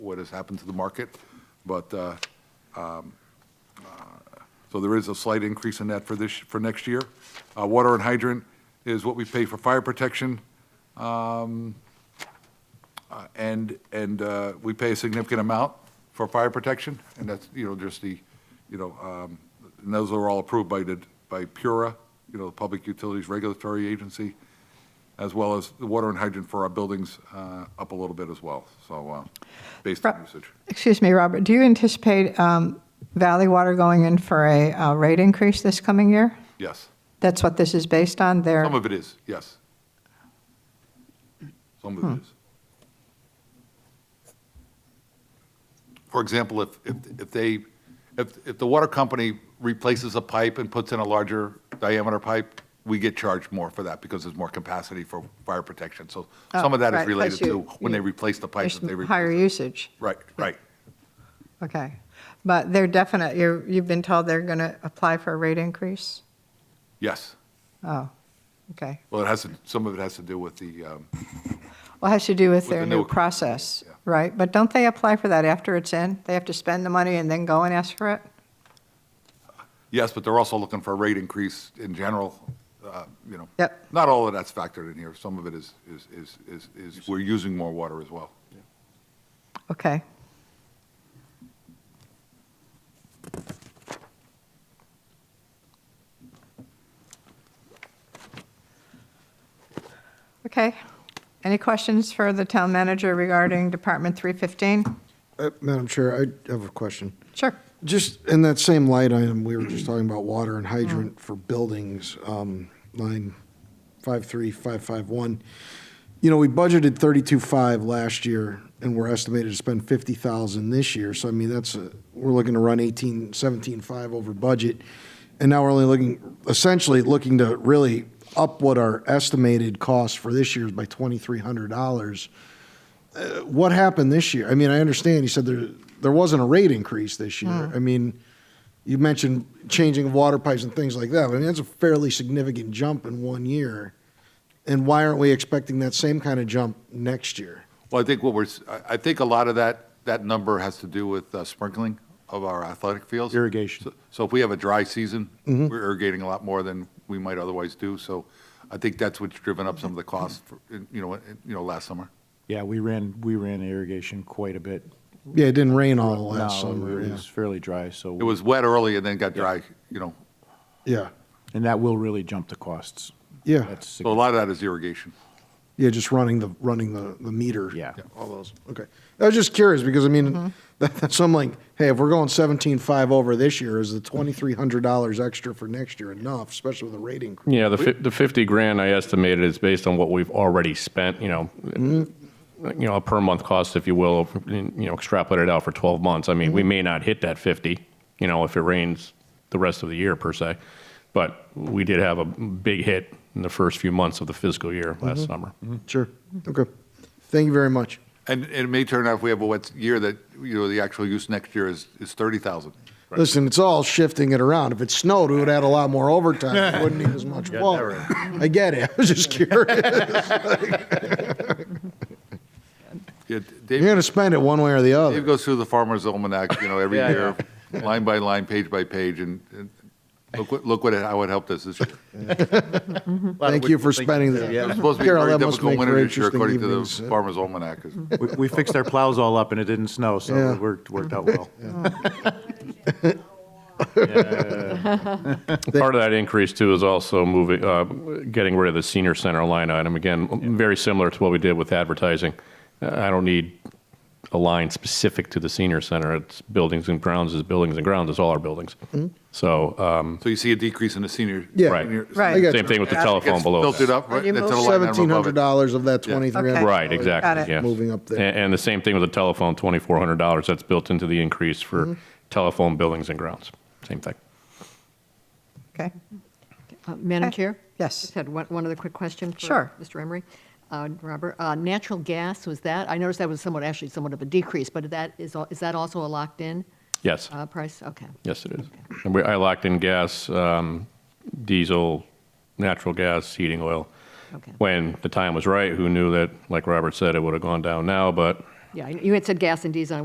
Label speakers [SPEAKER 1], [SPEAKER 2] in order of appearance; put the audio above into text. [SPEAKER 1] what has happened to the market, but, uh, um, uh, so there is a slight increase in that for this, for next year. Uh, Water and hydrant is what we pay for fire protection, um, uh, and, and uh, we pay a significant amount for fire protection, and that's, you know, just the, you know, um, and those are all approved by the, by PURA, you know, the Public Utilities Regulatory Agency, as well as the water and hydrant for our buildings uh, up a little bit as well, so, uh, based on
[SPEAKER 2] Ro-
[SPEAKER 1] usage.
[SPEAKER 2] Excuse me, Robert, do you anticipate um, Valley Water going in for a uh, rate increase this coming year?
[SPEAKER 1] Yes,
[SPEAKER 2] That's what this is based on, their,
[SPEAKER 1] some of it is, yes. Some of
[SPEAKER 2] Hmm.
[SPEAKER 1] it is. For example, if, if if they, if, if the water company replaces a pipe and puts in a larger diameter pipe, we get charged more for that because there's more capacity for fire protection. So some of that
[SPEAKER 2] Oh,
[SPEAKER 1] is
[SPEAKER 2] right,
[SPEAKER 1] related
[SPEAKER 2] plus
[SPEAKER 1] to
[SPEAKER 2] you-
[SPEAKER 1] when they
[SPEAKER 2] you-
[SPEAKER 1] replace the pipe.
[SPEAKER 2] there's
[SPEAKER 1] that they replace
[SPEAKER 2] higher
[SPEAKER 1] it.
[SPEAKER 2] usage?
[SPEAKER 1] Right, right.
[SPEAKER 2] Okay. But they're definite, you're- you've been told they're going to apply for a rate increase?
[SPEAKER 1] Yes.
[SPEAKER 2] Oh, okay.
[SPEAKER 1] Well, it has, to- some of it has to do with the, um,
[SPEAKER 2] Well, it has to do with
[SPEAKER 1] With
[SPEAKER 2] their
[SPEAKER 1] the
[SPEAKER 2] new
[SPEAKER 1] new-
[SPEAKER 2] process,
[SPEAKER 1] yeah.
[SPEAKER 2] right? But don't they apply for that after it's in? They have to spend the money and then go and ask for it?
[SPEAKER 1] yes, but they're also looking for a rate increase in general, uh, you know.
[SPEAKER 2] Yep.
[SPEAKER 1] Not all of that's factored in here. Some of it is, is, is, is, is we're using more water as well.
[SPEAKER 2] Okay. Okay. Any questions for the town manager regarding Department 315?
[SPEAKER 3] Uh, Madam Chair, I have a question.
[SPEAKER 2] Sure.
[SPEAKER 3] Just in that same light item, we were just talking about water and hydrant for buildings, um, line 53551. You know, we budgeted 32.5 last year, and we're estimated to spend 50,000 this year. So I mean, that's, a- we're looking to run 18, 17.5 over budget. And now we're only looking, essentially looking to really up what our estimated cost for this year is by $2,300 what happened this year? I mean, I understand you said there there wasn't a rate increase this year. I mean, you mentioned changing of water pipes and things like that. But I mean, that's a fairly significant jump in one year. And why aren't we expecting that same kind of jump next year?
[SPEAKER 1] Well, I think what we're, s- I I think a lot of that, that number has to do with uh, sprinkling of our athletic fields.
[SPEAKER 3] Irrigation.
[SPEAKER 1] So- So if we have a dry season, we're irrigating a lot more than we might otherwise do. So I think that's what's driven up some of the costs, for- you know, in- you know, last summer.
[SPEAKER 4] Yeah, we ran, we ran irrigation quite a bit.
[SPEAKER 3] Yeah, it didn't rain all last
[SPEAKER 4] No,
[SPEAKER 3] summer.
[SPEAKER 4] It
[SPEAKER 3] Yeah.
[SPEAKER 4] was fairly dry, so.
[SPEAKER 1] It was wet early and then got dry, you know.
[SPEAKER 3] yeah,
[SPEAKER 4] And that will really jump the costs.
[SPEAKER 3] Yeah.
[SPEAKER 4] That's
[SPEAKER 1] So a
[SPEAKER 4] significant.
[SPEAKER 1] lot of that is irrigation.
[SPEAKER 3] yeah, just running the running the, the meter.
[SPEAKER 4] Yeah. Yeah.
[SPEAKER 3] all those. Okay, I was just curious because I mean, that, that's so I'm like, hey, if we're going seventeen five over this year, is the twenty three hundred dollars extra for next year enough, especially with a rate increase?
[SPEAKER 5] Yeah, the, fif- the 50 grand I estimated is based on what we've already spent, you know, you know, a per month cost, if you will, you know, extrapolate it out for 12 months. I mean, we may not hit that 50, you know, if it rains the rest of the year per se, but we did have a big hit in the first few months of the fiscal year last summer.
[SPEAKER 3] Sure. Okay. Thank you very much.
[SPEAKER 1] And and it may turn out if we have a wet year that, you know, the actual use next year is, is 30,000.
[SPEAKER 3] Listen, it's all shifting it around. If it snowed, we would have had a lot more overtime. We wouldn't need as much water. I get it. I was just curious.
[SPEAKER 1] Yeah,
[SPEAKER 3] You're
[SPEAKER 1] Dave
[SPEAKER 3] going to spend it one way or the
[SPEAKER 1] Dave
[SPEAKER 3] other.
[SPEAKER 1] goes through the Farmer's Almanac, you know, every year, line by line, page by page, and and look what, look what, it- how it helped us this year.
[SPEAKER 3] Thank you for spending that.
[SPEAKER 1] It's supposed to be a
[SPEAKER 3] Carol,
[SPEAKER 1] very
[SPEAKER 3] that must
[SPEAKER 1] difficult
[SPEAKER 3] make
[SPEAKER 1] winter
[SPEAKER 3] for
[SPEAKER 1] this year,
[SPEAKER 3] interesting
[SPEAKER 1] according to the
[SPEAKER 3] evenings.
[SPEAKER 1] Farmer's Almanac.
[SPEAKER 5] Mm-hmm.
[SPEAKER 1] It's-
[SPEAKER 4] We- We fixed our plows all up and it didn't snow, so
[SPEAKER 3] Yeah.
[SPEAKER 4] it worked, worked out well.
[SPEAKER 5] Part of that increase too is also moving, uh, getting rid of the senior center line item. Again, very similar to what we did with advertising. I don't need a line specific to the senior center. It's buildings and grounds is buildings and grounds. It's all our buildings.
[SPEAKER 3] Mm-hmm.
[SPEAKER 5] So, um,
[SPEAKER 1] So you see a decrease in the senior.
[SPEAKER 3] Yeah.
[SPEAKER 5] Right.
[SPEAKER 1] senior-
[SPEAKER 2] Right.
[SPEAKER 3] I got
[SPEAKER 5] same
[SPEAKER 3] you.
[SPEAKER 5] thing with the
[SPEAKER 1] It gets
[SPEAKER 5] telephone below.
[SPEAKER 1] Filtered
[SPEAKER 5] that.
[SPEAKER 1] up, right?
[SPEAKER 2] You
[SPEAKER 1] That's
[SPEAKER 2] move-
[SPEAKER 1] a line item above it.
[SPEAKER 3] $1,700 of that
[SPEAKER 1] Yeah.
[SPEAKER 3] $2,300.
[SPEAKER 5] Right,
[SPEAKER 2] Got it.
[SPEAKER 5] exactly, yes.
[SPEAKER 3] Moving up there.
[SPEAKER 5] And, and the same thing with the telephone, twenty-four hundred dollars. That's built into the increase
[SPEAKER 3] Mm-hmm.
[SPEAKER 5] for telephone, buildings and grounds. Same thing.
[SPEAKER 2] Okay.
[SPEAKER 6] Uh, Madam
[SPEAKER 2] Okay.
[SPEAKER 6] Chair?
[SPEAKER 2] Yes.
[SPEAKER 6] Just had one, one other quick question for
[SPEAKER 2] Sure.
[SPEAKER 6] Mr. Emery. Uh, Robert, uh, natural gas, was that, I noticed that was somewhat, actually somewhat of a decrease, but that is, al- is that also a locked-in
[SPEAKER 5] Yes.
[SPEAKER 6] uh, price? Okay.
[SPEAKER 5] Yes, it is. And we, I locked in gas, um, diesel, natural gas, heating oil.
[SPEAKER 6] Okay.
[SPEAKER 5] When the time was right, who knew that, like Robert said, it would have gone down now, but
[SPEAKER 6] Yeah, you had said gas and diesel,